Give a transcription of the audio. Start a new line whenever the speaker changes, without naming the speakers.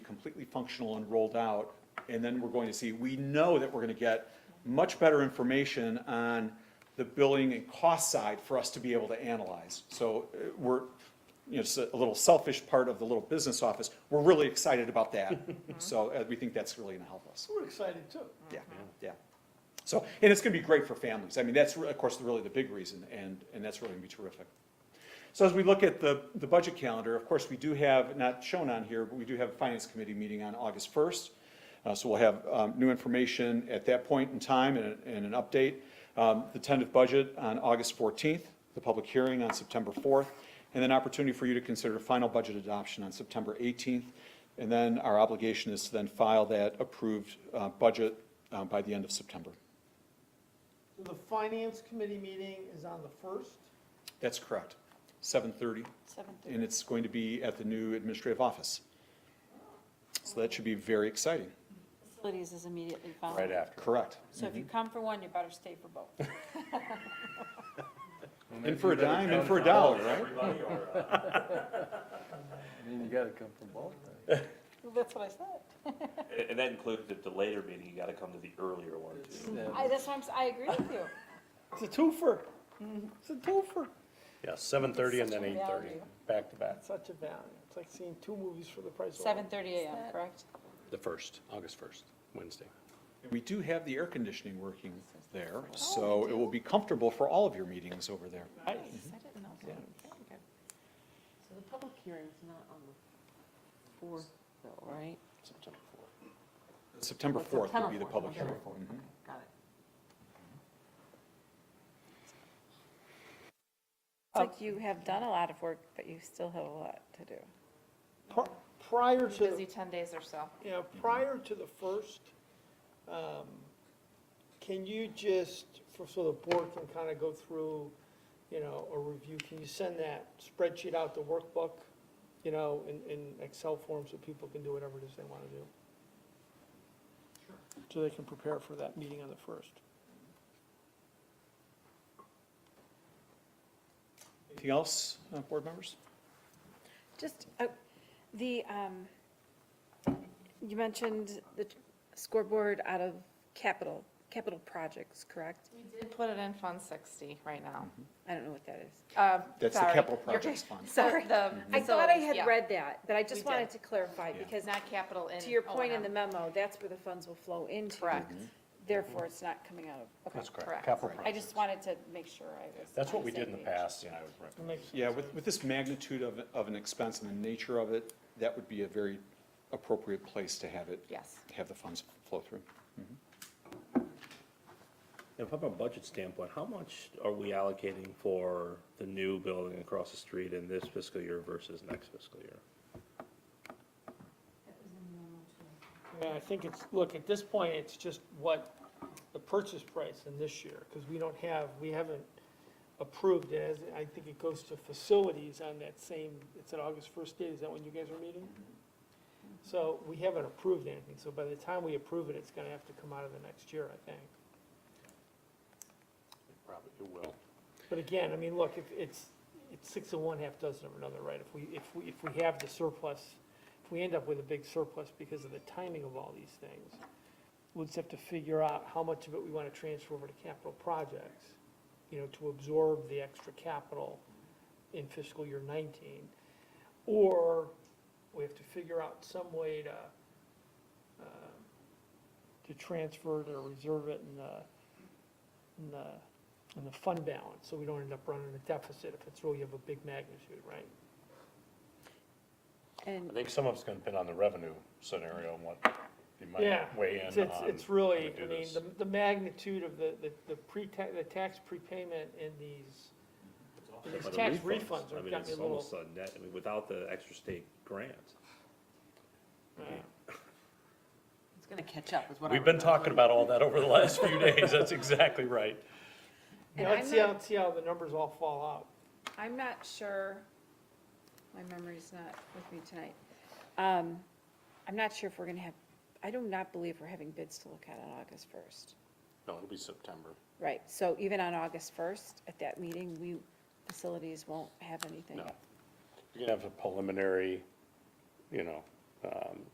completely functional and rolled out, and then we're going to see, we know that we're gonna get much better information on the billing and cost side for us to be able to analyze. So uh, we're, you know, it's a little selfish part of the little business office, we're really excited about that. So uh, we think that's really gonna help us.
We're excited too.
Yeah, yeah. So, and it's gonna be great for families. I mean, that's, re- of course, really the big reason, and, and that's really gonna be terrific. So as we look at the, the budget calendar, of course, we do have, not shown on here, but we do have a finance committee meeting on August first. Uh, so we'll have, um, new information at that point in time and, and an update. Um, the tentative budget on August fourteenth, the public hearing on September fourth, and then opportunity for you to consider final budget adoption on September eighteenth. And then our obligation is to then file that approved, uh, budget, uh, by the end of September.
So The finance committee meeting is on the first.
That's correct. Seven thirty.
Seven thirty.
and it's going to be at the new administrative office. So that should be very exciting.
Facilities is immediately following.
right Mm-hmm. after.
Correct.
So if you come for one, you better stay for both.
In for a dime, in for a dollar, right?
uh,
I mean, you gotta come from both.
That's what I said.
And- And that includes if the later meeting, you gotta come to the earlier one too.
I, that's why I'm, s- I agree with you.
It's a twofer. It's a twofer.
Yeah, seven thirty and then
Such a
eight thirty,
value.
back to back.
Such a value. It's like seeing two movies for the price of
Seven
one.
thirty AM, correct?
The first, August first, Wednesday.
We do have the air conditioning working there, so it will be comfortable for all of your meetings over there.
I
Mm-hmm.
didn't know
Yeah.
So the public hearing's not on the fourth though, right?
September fourth.
September
That's
fourth will be the
September
public
4th,
hearing.
okay.
Mhm.
Got it.
Oh.
It's like you have done a lot of work, but you still have a lot to do.
Pri- Prior
Busy
to,
ten days or so.
yeah, prior to the first, um, can you just, for, so the board can kind of go through, you know, a review, can you send that spreadsheet out, the workbook, you know, in, in Excel form so people can do whatever it is they want to do? So they can prepare for that meeting on the first.
Anything else, uh, board members?
Just, uh, the, um, you mentioned the scoreboard out of capital, capital projects, correct?
We did put it in Fund 60 right now.
I don't know what that is.
Uh,
That's the
sorry.
capital
You're-
projects fund.
Sorry.
The
I thought I
facilities, yeah.
had read that, but I
We
just
did.
wanted to clarify, because
It's not capital in.
to your point in the
O&M.
memo, that's where the funds will flow into.
Correct.
Therefore, it's not coming out of, okay.
Mm-hmm. That's correct,
Correct.
capital
I
projects.
just wanted to make sure I was.
That's what
on
we
the
did in
same
the
page.
past, and I would recommend.
That makes sense.
Yeah, with, with this magnitude of, of an expense and the nature of it, that would be a very appropriate place to have it.
Yes.
Have the funds flow through.
And from a budget standpoint, how much are we allocating for the new building across the street in this fiscal year versus next fiscal year?
Yeah, I think it's, look, at this point, it's just what the purchase price in this year, because we don't have, we haven't approved it, as, I think it goes to facilities on that same, it's an August first date, is that when you guys are meeting? So we haven't approved anything, so by the time we approve it, it's gonna have to come out of the next year, I think.
Probably it will.
But again, I mean, look, if it's, it's six of one, half dozen of another, right? If we, if we, if we have the surplus, if we end up with a big surplus because of the timing of all these things, we'll just have to figure out how much of it we want to transfer over to capital projects, you know, to absorb the extra capital in fiscal year nineteen. Or we have to figure out some way to, uh, to transfer to reserve it in the, in the and the fund balance, so we don't end up running a deficit if it's really of a big magnitude, right?
I
And
think some of it's gonna depend on the revenue scenario and what you
Yeah.
might weigh
It's,
in
it's
um,
on.
it's
how
really,
to do
I mean,
this.
the, the magnitude of the, the- the pre-tax, the tax prepayment in these, in these
But the
tax
refunds,
refunds
I
have
mean,
got
it's
me a little.
almost a net, I mean, without the extra state grant.
uh,
It's gonna catch up with what I.
We've been
remember.
talking about all that over the last few days, that's exactly right.
You
And
know,
I'm
let's see how,
not-
let's see how the numbers all fall out.
I'm not sure, my memory's not with me tonight. Um, I'm not sure if we're gonna have, I do not believe we're having bids to look at on August first.
No, it'll be September.
Right, so even on August first, at that meeting, we, facilities won't have anything.
No. You're gonna have a preliminary, you know, um,